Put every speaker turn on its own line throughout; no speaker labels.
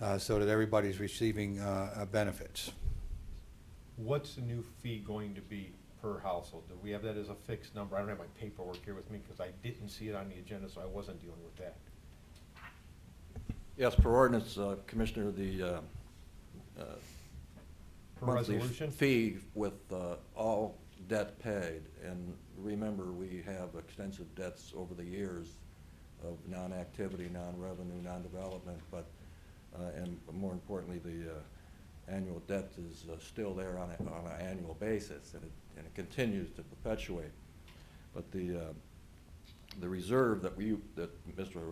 uh, so that everybody's receiving uh, uh, benefits.
What's the new fee going to be per household? Do we have that as a fixed number? I don't have my paperwork here with me because I didn't see it on the agenda, so I wasn't dealing with that.
Yes, per ordinance, uh, Commissioner, the uh, uh,
Per
monthly
resolution?
fee with uh, all debt paid, and remember, we have extensive debts over the years of non-activity, non-revenue, non-development, but, uh, and more importantly, the uh, annual debt is uh, still there on a, on an annual basis, and it, and it continues to perpetuate. But the, uh, the reserve that we, that Mr. uh,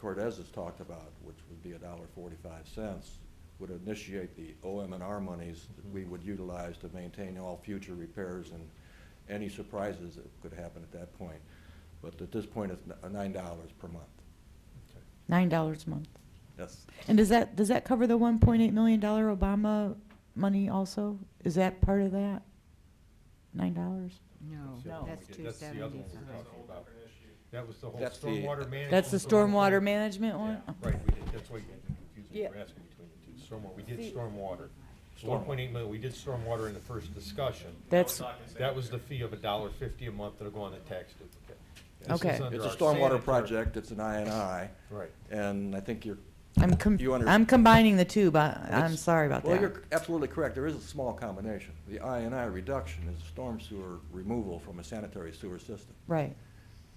Cortez has talked about, which would be a dollar forty-five cents, would initiate the OM and R monies that we would utilize to maintain all future repairs and any surprises that could happen at that point. But at this point, it's n- nine dollars per month.
Okay.
Nine dollars a month.
Yes,
And does that, does that cover the one point eight million dollar Obama money also? Is that part of that? Nine dollars?
No,
Oh,
That's the other one
that's
we did. That's the other one we were
275.
talking about. That was the whole
That's the-
stormwater management.
That's the stormwater oh, management
Yeah,
one?
Right, we did, that's why you had to confuse me, you were
Yeah.
asking between the two. Stormwater, we did
See-
stormwater. One point eight million, we did stormwater in the first discussion.
That's,
That was the fee of a dollar fifty a month that'll go on the tax duplicate. This is
Okay.
under
it's a
our
stormwater
sanitary-
project, it's an I and I,
Right.
and I think you're.
I'm, com-
You under-
I'm combining the two, but I'm
It's-
sorry about
Well,
that.
you're absolutely correct. There is a small combination. The I and I reduction is storm sewer removal from a sanitary sewer system.
Right.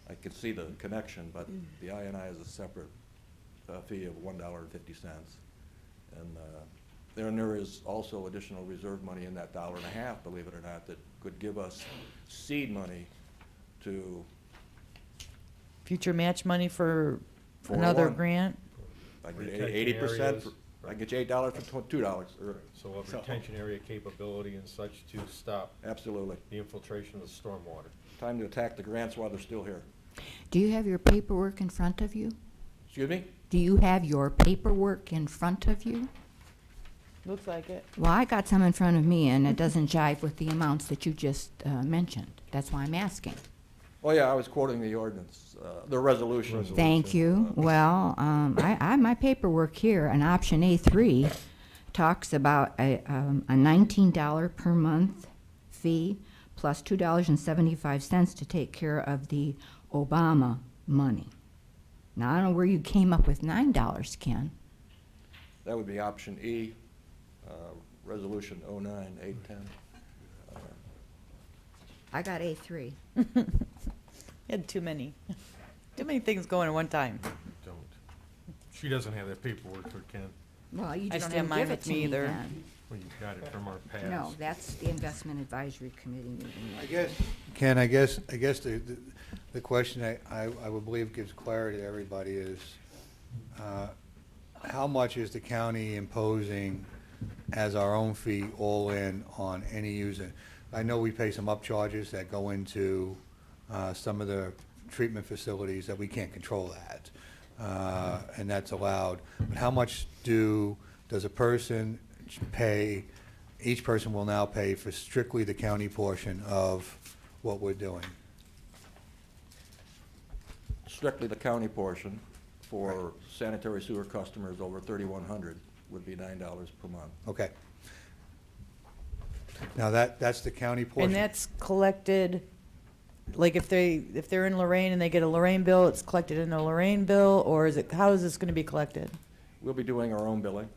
I can see the connection, but the I and I is a separate uh, fee of one dollar and fifty cents. And uh, there, and there is also additional reserve money in that dollar and a half, believe it or not, that could give us seed money to,
Future match money for
For
another
oh one.
grant?
I get
Retention
eighty percent,
areas.
I get you eight dollars for tw- two dollars, or,
So of
So-
retention area capability and such to stop
absolutely.
the infiltration of the stormwater.
Time to attack the grants while they're still here.
Do you have your paperwork in front of you?
Excuse me?
Do you have your paperwork in front of you?
Looks like it.
Well, I got some in front of me, and it doesn't jive with the amounts that you just uh, mentioned. That's why I'm asking.
Oh, yeah, I was quoting the ordinance, uh, the resolution.
Resolution.
Thank you. Well, um, I, I, my paperwork here, on option A three, talks about a, um, a nineteen dollar per month fee plus two dollars and seventy-five cents to take care of the Obama money. Now, I don't know where you came up with nine dollars, Ken.
That would be option E, uh, resolution oh nine eight ten.
I got A three.
Had too many. Too many things going at one time.
Don't. She doesn't have that paperwork, or Ken.
Well, you
I don't
just
have
didn't
mine
give it
with
to
me
me
either.
then.
Well, you got it from our past.
No, that's the investment advisory committee meeting.
I guess, Ken, I guess, I guess the, the- the question I- I, I would believe gives clarity to everybody is, uh, how much is the county imposing as our own fee all in on any user? I know we pay some upcharges that go into uh, some of the treatment facilities that we can't control that, uh, and that's allowed. But how much do, does a person pay, each person will now pay for strictly the county portion of what we're doing?
Strictly the county portion for sanitary sewer customers over thirty-one hundred would be nine dollars per month.
Okay. Now, that, that's the county portion.
And that's collected, like if they, if they're in Lorraine and they get a Lorraine bill, it's collected in a Lorraine bill, or is it, how is this gonna be collected?
We'll be doing our own billing,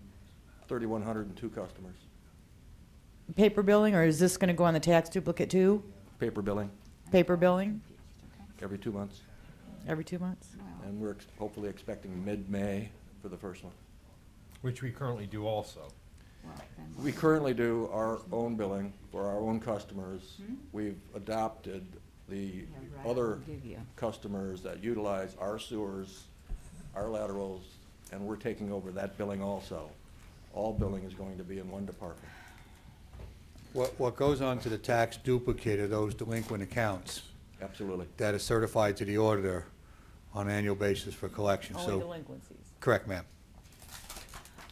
thirty-one hundred and two customers,
Paper billing, or is this gonna go on the tax duplicate too?
paper billing
Paper billing
every two months.
every two months?
And we're ex- hopefully expecting mid-May for the first one.
Which we currently do also.
We currently do our own billing for our own customers. We've adopted the other customers that utilize our sewers, our laterals, and we're taking over that billing also. All billing is going to be in one department.
What, what goes on to the tax duplicate are those delinquent accounts
Absolutely.
that are certified to the auditor on an annual basis for collection,
Only
so,
delinquencies.
correct, ma'am?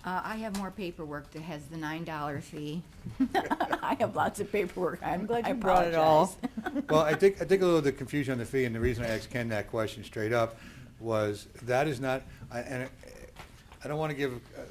Uh, I have more paperwork that has the nine dollar fee. I have lots of paperwork. I'm,
I'm glad
I
you brought it all.
apologize.
Well, I think, I think a little of the confusion on the fee, and the reason I asked Ken that question straight up was, that is not, I- and I- I don't want to give uh,